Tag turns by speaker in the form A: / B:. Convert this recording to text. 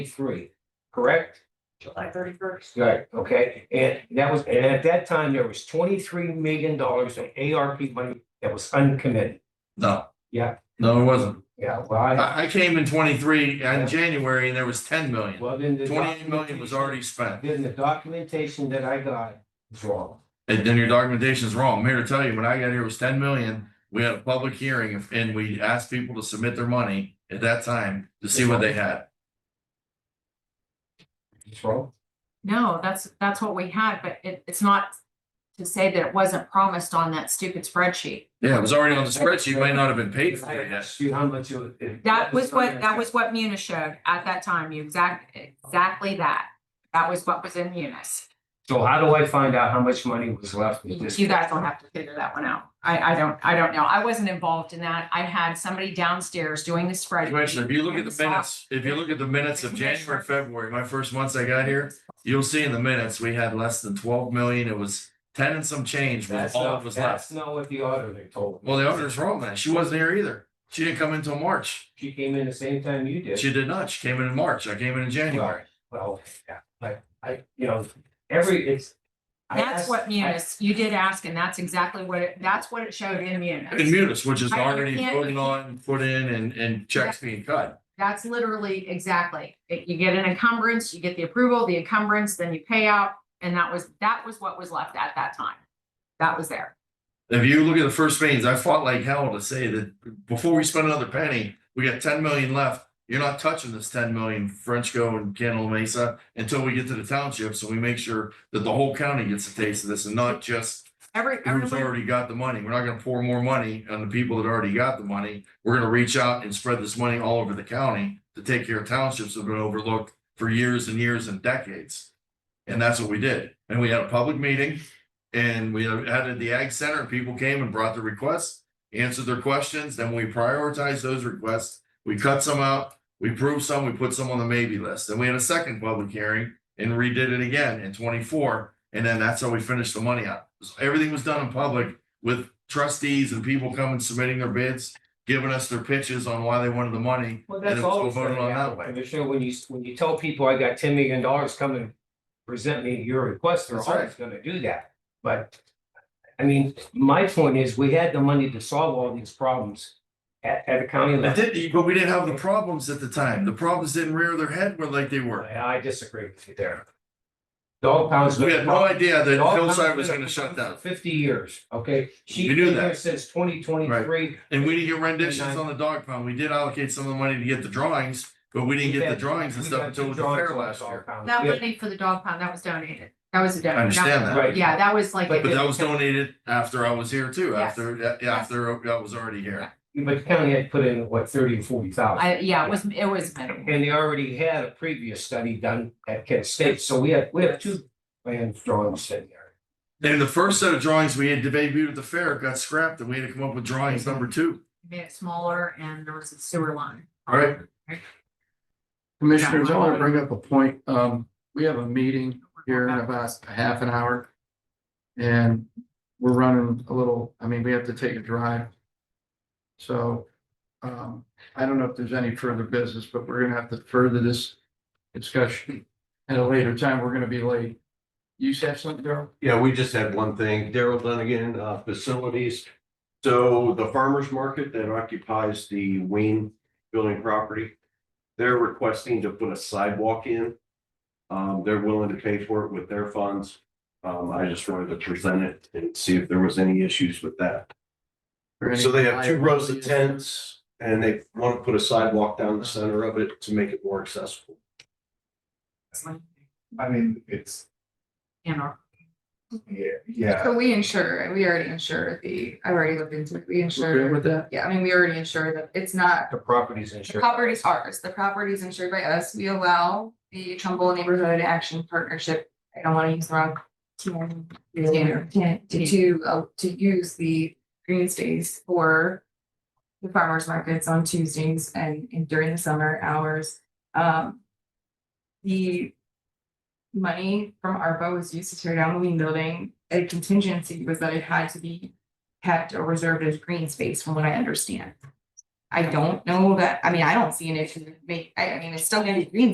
A: three, correct?
B: July thirty first.
A: Right, okay, and that was, and at that time, there was twenty-three million dollars of ARP money that was uncommitted.
C: No.
A: Yeah.
C: No, it wasn't.
A: Yeah, well, I,
C: I, I came in twenty-three
A: Yeah.
C: in January and there was ten million.
A: well, then the.
C: Twenty-eight million was already spent.
A: Then the documentation that I got was wrong.
C: And then your documentation is wrong. I'm here to tell you, when I got here, it was ten million. We had a public hearing and we asked people to submit their money at that time to see what they had.
A: It's wrong.
B: No, that's, that's what we had, but it, it's not to say that it wasn't promised on that stupid spreadsheet.
C: Yeah, it was already on the spreadsheet, might not have been paid for it yet.
A: See how much it was. it-
B: That was what, that was what Munis showed at that time, you exact, exactly that. That was what was in Munis.
A: So how do I find out how much money was left? with this?
B: You guys don't have to figure that one out. I, I don't, I don't know. I wasn't involved in that. I had somebody downstairs doing the spreadsheet.
C: Commissioner, if you look at the minutes, if you look at the minutes of January, February, my first months I got here, you'll see in the minutes, we had less than twelve million. It was ten and some change was
A: That's
C: all that
A: not,
C: was
A: that's
C: left.
A: not what the auditor told me.
C: Well, the auditor's wrong then. She wasn't here either. She didn't come in until March.
A: She came in the same time you did.
C: She did not. She came in in March. I came in in January.
A: Well, yeah, but I, you know, every, it's. I
B: That's
A: asked-
B: what
A: I-
B: Munis, you did ask, and that's exactly what it, that's what it showed in
C: In
B: Munis.
C: Munis, which is
B: I- I
C: already
B: can't-
C: voted on, put in and, and checks being cut.
B: That's literally exactly. It- You get an encumbrance, you get the approval, the encumbrance, then you pay out, and that was, that was what was left at that time. That was there.
C: If you look at the first meetings, I fought like hell to say that before we spend another penny, we got ten million left. You're not touching this ten million Frenchco and Candle Mesa until we get to the township, so we make sure that the whole county gets a taste of this and not just
B: Every,
C: who's
B: everyone,
C: already got the money. We're not gonna pour more money on the people that already got the money. We're gonna reach out and spread this money all over the county to take care of townships that have been overlooked for years and years and decades. And that's what we did. And we had a public meeting and we had it at the ag center. People came and brought their requests, answered their questions. Then we prioritized those requests. We cut some out, we approved some, we put some on the maybe list. Then we had a second public hearing and redid it again in twenty-four. And then that's how we finished the money out. So Everything was done in public with trustees and people coming, submitting their bids, giving us their pitches on why they wanted the money.
A: Well,
C: and it
A: that's
C: was all
A: always
C: voted
A: gonna
C: on that
A: happen,
C: way.
A: Commissioner, when you, when you tell people I got ten million dollars coming, present me your request, they're
C: That's right.
A: always gonna do that, but. I mean, my point is, we had the money to solve all these problems at, at the county
C: It
A: level.
C: did, but we didn't have the problems at the time. The problems didn't rear their head where like they were.
A: I disagree with you there. Dog pounds.
C: We had no idea that
A: Dog
C: Hillside
A: pound's
C: was
A: been
C: gonna shut
A: around
C: down.
A: for Fifty years, okay? She
C: We knew
A: been here
C: that.
A: Since twenty twenty-three.
C: And we didn't get renditions on the dog pound. We did allocate some of the money to get the drawings, but we didn't get the drawings and stuff until the fair last year.
B: that money for the dog pound, that was donated. That was a
C: I
B: donation.
C: understand that.
A: Right,
B: Yeah, that was like.
C: But that was donated after I was here too, after, yeah, after I was already here.
A: but the county had put in, what, thirty or forty thousand?
B: I, yeah, it was, it was minimal.
A: And they already had a previous study done at Kent State, so we have, we have two plans drawn sitting there.
C: And the first set of drawings we had debuted at the fair got scrapped and we had to come up with drawings number two.
B: Made it smaller and there was a sewer line.
C: All right.
D: Commissioners, I want to bring up a point. Um, we have a meeting here in about a half an hour. And we're running a little, I mean, we have to take a drive. So, um, I don't know if there's any further business, but we're gonna have to further this discussion at a later time. We're gonna be late. You said something, Darrell?
E: Yeah, we just had one thing. Daryl Dunnigan, uh, facilities. So the farmer's market that occupies the Wayne building property, they're requesting to put a sidewalk in. Um, they're willing to pay for it with their funds. Um, I just wanted to present it and see if there was any issues with that.
D: Or any
E: So they have two rows
D: liability
E: of
D: issues?
E: tents and they want to put a sidewalk down the center of it to make it more accessible.
F: I mean, it's,
B: You know.
F: yeah, yeah,
G: So we insure, we already insure the, I already looked into it, we
D: We're good
G: insure,
D: with that?
G: yeah, I mean, we already insure that it's not,
A: The properties
G: the
A: insurance.
G: property's ours, the property's insured by us, we allow the Trumbull Neighborhood Action Partnership. I don't wanna use the wrong term,
B: Yeah.
G: to, to, uh, to use the green space for the farmers markets on Tuesdays and and during the summer hours. Um, the money from ARPA was used to tear down the lean building. A contingency was that it had to be kept or reserved as green space from what I understand. I don't know that, I mean, I don't see an issue, with make, I, I mean, it's still gonna be green